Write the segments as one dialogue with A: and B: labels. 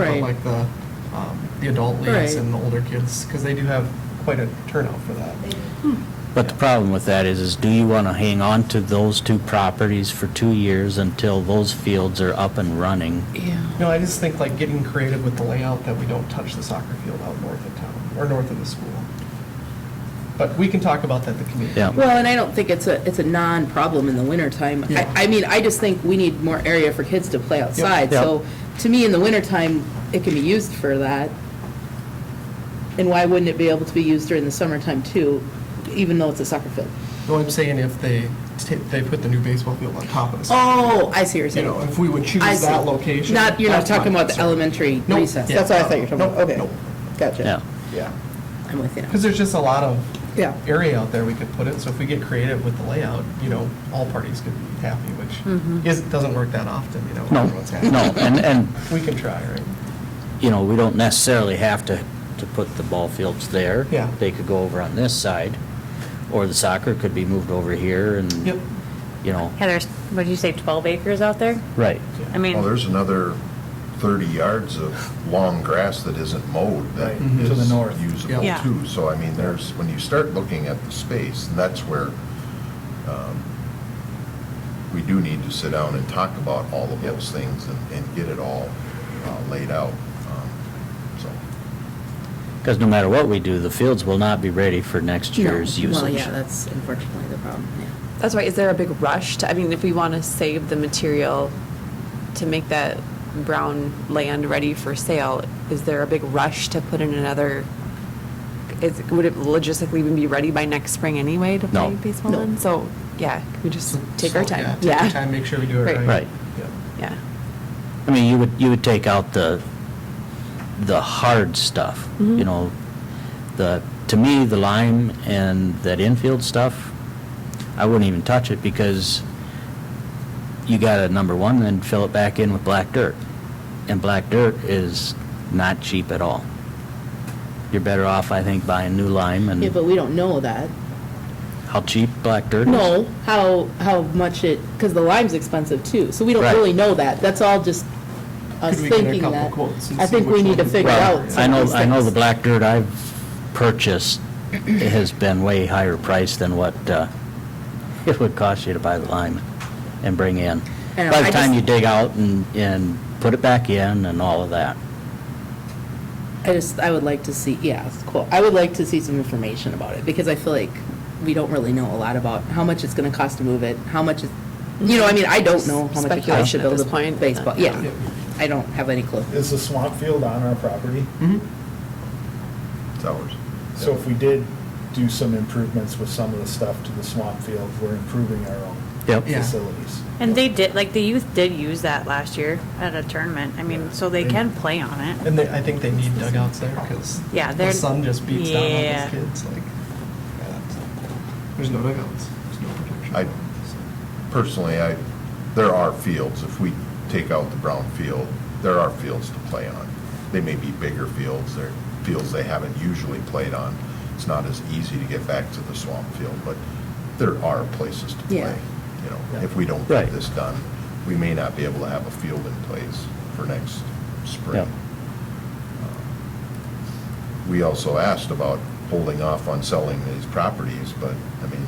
A: Right.
B: But like the, um, the adult leagues
A: Right.
B: and the older kids, because they do have quite a turnout for that.
C: But the problem with that is, is do you want to hang on to those two properties for two years until those fields are up and running?
A: Yeah.
B: No, I just think like getting creative with the layout that we don't touch the soccer field out north of town, or north of the school. But we can talk about that at the committee.
C: Yeah.
A: Well, and I don't think it's a, it's a non-problem in the wintertime. I,
B: Yeah.
A: I mean, I just think we need more area for kids to play outside.
C: Yep.
A: So to me, in the wintertime, it can be used for that. And why wouldn't it be able to be used during the summertime too, even though it's a soccer field?
B: No, I'm saying if they, ta- they put the new baseball field on top of the. soccer
A: Oh, I see what you're
B: You
A: saying.
B: know, if we would choose
A: I see.
B: that location.
A: Not, you're not
B: that's my
A: talking about the
B: concern.
A: elementary
B: Nope.
A: recess.
B: Yeah.
A: That's what I thought you were talking about.
B: Nope,
A: Okay.
B: nope.
A: Gotcha.
C: Yeah.
B: Yeah,
A: I'm with you. now.
B: because there's just a lot of
A: Yeah.
B: area out there we could put it, so if we get creative with the layout, you know, all parties could be happy,
A: Mm-hmm.
B: which is, doesn't work that often, you know,
C: No,
B: everyone's happy.
C: no, and, and,
B: We can try, right?
C: you know, we don't necessarily have to, to put the ball fields there.
B: Yeah.
C: They could go over on this side, or the soccer could be moved over here and,
B: Yep.
C: you know,
D: Yeah, there's, what did you say, 12 acres out there?
C: right.
D: I mean,
E: Well, Oh, there's another 30 yards of long grass that isn't mowed that
B: Right. Mhm.
F: To the
E: is
F: north.
E: usable
D: Yeah.
E: too. So I mean, there's, when you start looking at the space, and that's where um, we do need to sit down and talk about all of those things and- and get it all uh, laid out. Um, So,
C: Because no matter what we do, the fields will not be ready for next year's
A: No.
C: usage.
A: Well, yeah, that's unfortunately the problem, yeah.
G: That's why, is there a big rush to, I mean, if we want to save the material to make that brown land ready for sale, is there a big rush to put in another, is, would it logistically even be ready by next spring anyway to
C: No.
G: play baseball
A: No.
G: in? So, yeah, can we just take
B: So,
G: our
B: yeah,
G: time?
B: Take our time, make sure we do it
G: Right.
B: right.
C: Right.
B: Yeah.
G: Yeah.
C: I mean, you would, you would take out the, the hard stuff,
A: Mm-hmm.
C: you know, the, to me, the lime and that infield stuff, I wouldn't even touch it because you gotta, number one, then fill it back in with black dirt. And black dirt is not cheap at all. You're better off, I think, buying new lime
A: Yeah, but
C: and
A: we don't know that.
C: how cheap black dirt is.
A: No, how, how much it, because the lime's expensive too, so we don't
C: Right.
A: really know that. That's all just us
B: Could we get a
A: thinking
B: couple
A: that.
B: quotes and
A: I
B: see
A: think
B: which
A: we need to
B: one-
A: figure
B: Well,
A: out
C: I
A: some of
C: know,
A: these
C: I know the
A: things.
C: black dirt I've purchased has been way higher priced than what uh, it would cost you to buy the lime and bring in.
A: I know,
C: By
A: I
C: the time
A: just-
C: you dig out and, and put it back in and all of that.
A: I just, I would like to see, yeah, it's cool. I would like to see some information about it, because I feel like we don't really know a lot about how much it's gonna cost to move it, how much it, you know, I mean, I don't know how much it costs to
G: Speculation at
A: build
G: this
A: a
G: point.
A: baseball, yeah. I don't have any clue.
F: Is the swamp field on our property?
E: it's ours.
F: So if we did do some improvements with some of the stuff to the swamp field, we're improving our own
C: Yep.
B: Yeah.
F: facilities.
D: and they did, like, the youth did use that last year at a tournament. I mean, so they can play on it.
B: And they, I think they need dugouts there because
D: Yeah,
B: the
D: they're-
B: sun just beats down on
D: yeah.
B: those kids. Like, yeah, so. there's no dugouts. There's no protection.
E: I- Personally, I, there are fields, if we take out the brown field, there are fields to play on. They may be bigger fields, they're fields they haven't usually played on. It's not as easy to get back to the swamp field, but there are places to
A: Yeah.
E: play. You know, if we don't
C: Right.
E: get this done, we may not be able to have a field in place for next
C: Yeah.
E: spring. Um, We also asked about holding off on selling these properties, but, I mean,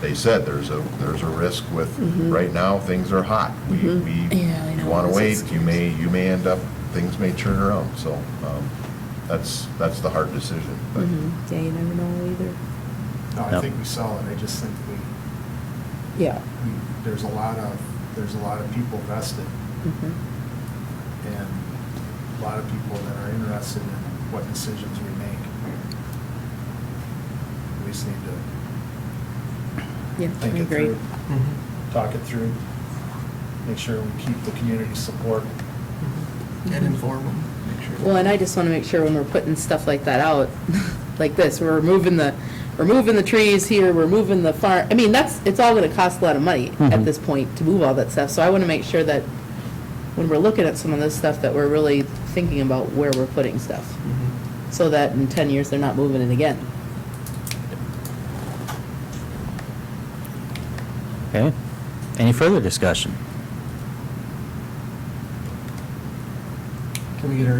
E: they said there's a, there's a risk with, right now, things are hot. We,
A: Yeah, I
E: we,
A: know.
E: you want
A: It's
E: to wait, you
A: expensive.
E: may, you may end up, things may turn around, so um, that's, that's the hard decision. but-
G: Yeah, you never know either.
F: No, I
C: Yep.
F: think we sell it, I just think we,
A: Yeah.
F: we, there's a lot of, there's a lot of people vested
A: Mhm.
F: and a lot of people that are interested in what decisions we make. We just need to
A: Yeah, I
F: think it
A: agree.
F: through, talk it through, make sure we keep the community support.
B: And inform them, make sure.
A: Well, and I just want to make sure when we're putting stuff like that out, like this, we're removing the, we're moving the trees here, we're moving the farm. I mean, that's, it's all going to cost a lot of money at
C: Mhm.
A: this point to move all that stuff. So I want to make sure that when we're looking at some of this stuff, that we're really thinking about where we're putting stuff.
B: Mm-hmm.
A: So that in 10 years, they're not moving it again.
C: Okay? Any further discussion?
B: Can we get our